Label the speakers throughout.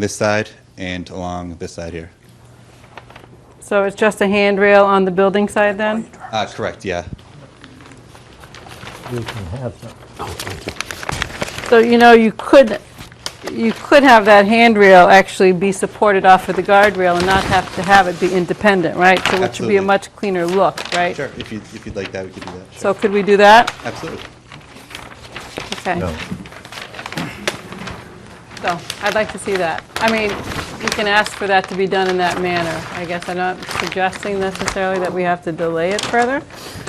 Speaker 1: this side and along this side here.
Speaker 2: So it's just a handrail on the building side then?
Speaker 1: Uh, correct, yeah.
Speaker 3: You can have them.
Speaker 2: So, you know, you could, you could have that handrail actually be supported off of the guardrail and not have to have it be independent, right? So it should be
Speaker 1: Absolutely.
Speaker 2: a much cleaner look, right?
Speaker 1: Sure, if you'd, if you'd like that, we could do that.
Speaker 2: So
Speaker 1: Sure.
Speaker 2: could we do that?
Speaker 1: Absolutely.
Speaker 2: Okay.
Speaker 3: No.
Speaker 4: Oh.
Speaker 2: So I'd like to see that. I mean, we can ask for that to be done in that manner. I guess I'm not suggesting necessarily that we have to delay it further,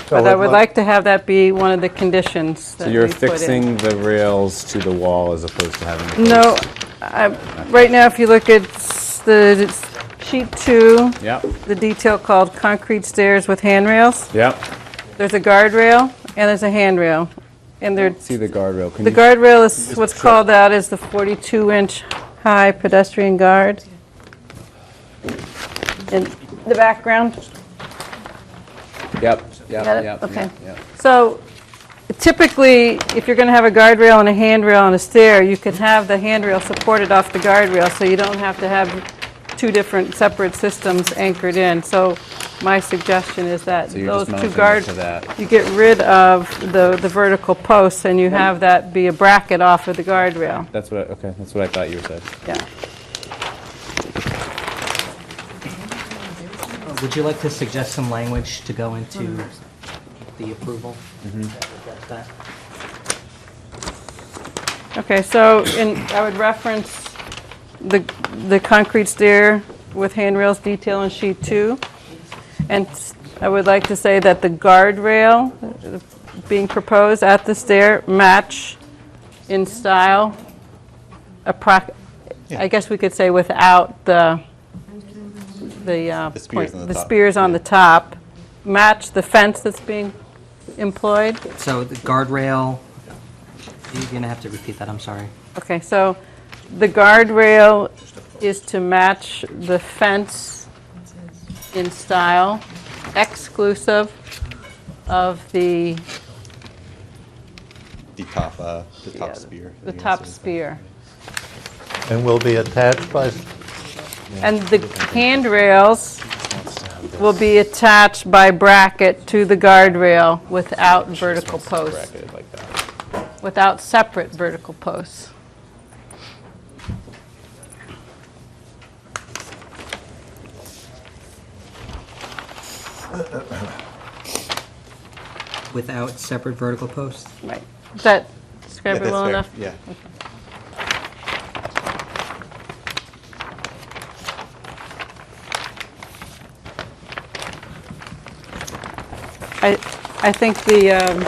Speaker 2: but I
Speaker 4: what
Speaker 2: would
Speaker 4: lo-
Speaker 2: like to have that be one of the conditions that
Speaker 4: So
Speaker 2: we
Speaker 4: you're
Speaker 2: put in.
Speaker 4: fixing the rails to the wall as opposed to having the
Speaker 2: No, I- right now, if you look at s- the it's sheet two,
Speaker 4: Yep,
Speaker 2: the detail called concrete stairs with handrails,
Speaker 4: yep.
Speaker 2: there's a guardrail and there's a handrail. And there,
Speaker 4: See the guardrail. Can
Speaker 2: the
Speaker 4: you
Speaker 2: guardrail is what's called out as the 42-inch high pedestrian guard. In the background.
Speaker 4: Yep, yep,
Speaker 2: Got it?
Speaker 4: yep.
Speaker 2: Okay.
Speaker 4: yep, yep.
Speaker 2: So typically, if you're going to have a guardrail and a handrail and a stair, you can have the handrail supported off the guardrail, so you don't have to have two different separate systems anchored in. So my suggestion is that
Speaker 4: you're just
Speaker 2: those two
Speaker 4: mounting it
Speaker 2: guards,
Speaker 4: to that.
Speaker 2: you get rid of the, the vertical posts, and you have that be a bracket off of the guardrail.
Speaker 4: That's what, I- okay, that's what I thought you said.
Speaker 2: Yeah.
Speaker 5: Would you like to suggest some language to go into the approval? That- that-
Speaker 2: Okay, so in, I would reference the, the concrete stair with handrails detail in sheet two. And s- I would like to say that the guardrail uh, being proposed at the stair match in style, approx, I guess we could say without the, the, uh,
Speaker 1: The spears
Speaker 2: point-
Speaker 1: on the
Speaker 2: the
Speaker 1: top,
Speaker 2: spears on the top, match the fence that's being employed.
Speaker 5: So the guardrail, you're going to have to repeat that, I'm sorry.
Speaker 2: Okay, so the guardrail is to match the fence in style, exclusive of the,
Speaker 1: The top, uh, the
Speaker 2: Yeah,
Speaker 1: top spear.
Speaker 2: the
Speaker 1: I
Speaker 2: top
Speaker 1: guess.
Speaker 2: spear.
Speaker 3: And will be attached by, s-
Speaker 2: And the handrails will be attached by bracket to the guardrail without vertical posts,
Speaker 4: Bracket like that.
Speaker 2: without separate vertical posts.
Speaker 5: Without separate vertical posts?
Speaker 2: Right. Does that
Speaker 1: Yeah,
Speaker 2: describe it
Speaker 1: that's
Speaker 2: well
Speaker 1: fair,
Speaker 2: enough?
Speaker 1: Yeah.
Speaker 2: I, I think the, um,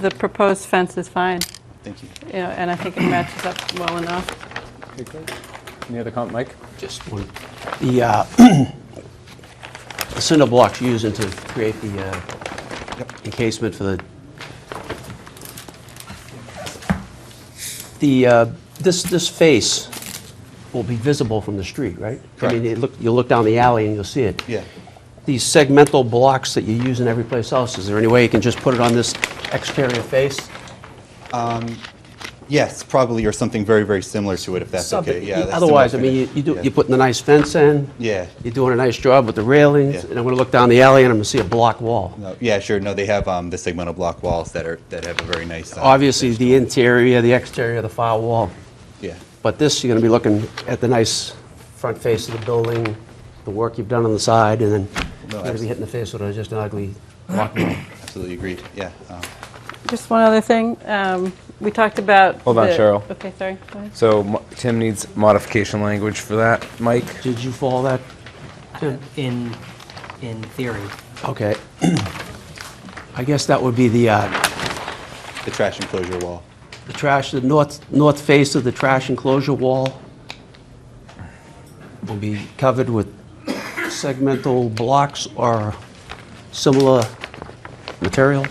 Speaker 2: the proposed fence is fine,
Speaker 1: Thank you.
Speaker 2: you know, and I think it matches up well enough.
Speaker 4: Okay, great. Any other comment, Mike?
Speaker 6: Just one. The uh, the cinder blocks used to create the uh, encasement for the, the, uh, this, this face will be visible from the street, right? I
Speaker 1: Correct.
Speaker 6: mean, you look, you look down the alley and you'll see it.
Speaker 1: Yeah.
Speaker 6: These segmental blocks that you use in every place else, is there any way you can just put it on this exterior face?
Speaker 1: Yes, probably, or something very, very similar to it, if that's okay.
Speaker 6: Something-
Speaker 1: Yeah. that's
Speaker 6: Otherwise, I
Speaker 1: similar
Speaker 6: mean, you
Speaker 1: finish.
Speaker 6: you do,
Speaker 1: Yeah.
Speaker 6: you're putting a nice fence in.
Speaker 1: Yeah.
Speaker 6: You're doing a nice job with the railings,
Speaker 1: Yeah.
Speaker 6: and I'm gonna look down the alley and I'm gonna see a block wall.
Speaker 1: No, Yeah, sure. No, they have, um, the segmental block walls that are, that have a very nice. uh,
Speaker 6: Obviously, the interior, the exterior, the far wall,
Speaker 1: Yeah.
Speaker 6: but this, you're gonna be looking at the nice front face of the building, the work you've done on the side, and then
Speaker 1: No,
Speaker 6: you're gonna be
Speaker 1: abs-
Speaker 6: hit in the face with a- just an ugly
Speaker 1: Absolutely agreed. Yeah. um,
Speaker 2: Just one other thing, um, we talked about.
Speaker 4: Hold on,
Speaker 2: the-
Speaker 4: Cheryl.
Speaker 2: Okay, sorry. go ahead.
Speaker 4: So Mo- Tim needs modification language for that. Mike?
Speaker 6: Did you follow that?
Speaker 5: In, in theory.
Speaker 6: Okay. I guess that would be the, uh,
Speaker 1: The trash enclosure wall.
Speaker 6: the trash, the north, north face of the trash enclosure wall will be covered with segmental blocks or similar material?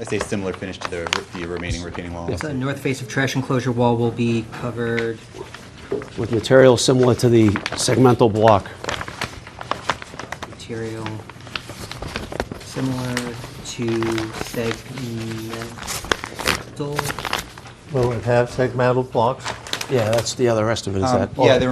Speaker 1: I say similar finish to the, the remaining retaining wall.
Speaker 5: So the north face of trash enclosure wall will be covered,
Speaker 6: with material similar to the segmental block.
Speaker 5: material similar to segmental,
Speaker 3: will it have segmental blocks?
Speaker 7: Yeah, that's the other rest of it, is
Speaker 6: Um,
Speaker 7: that?
Speaker 6: Yeah, there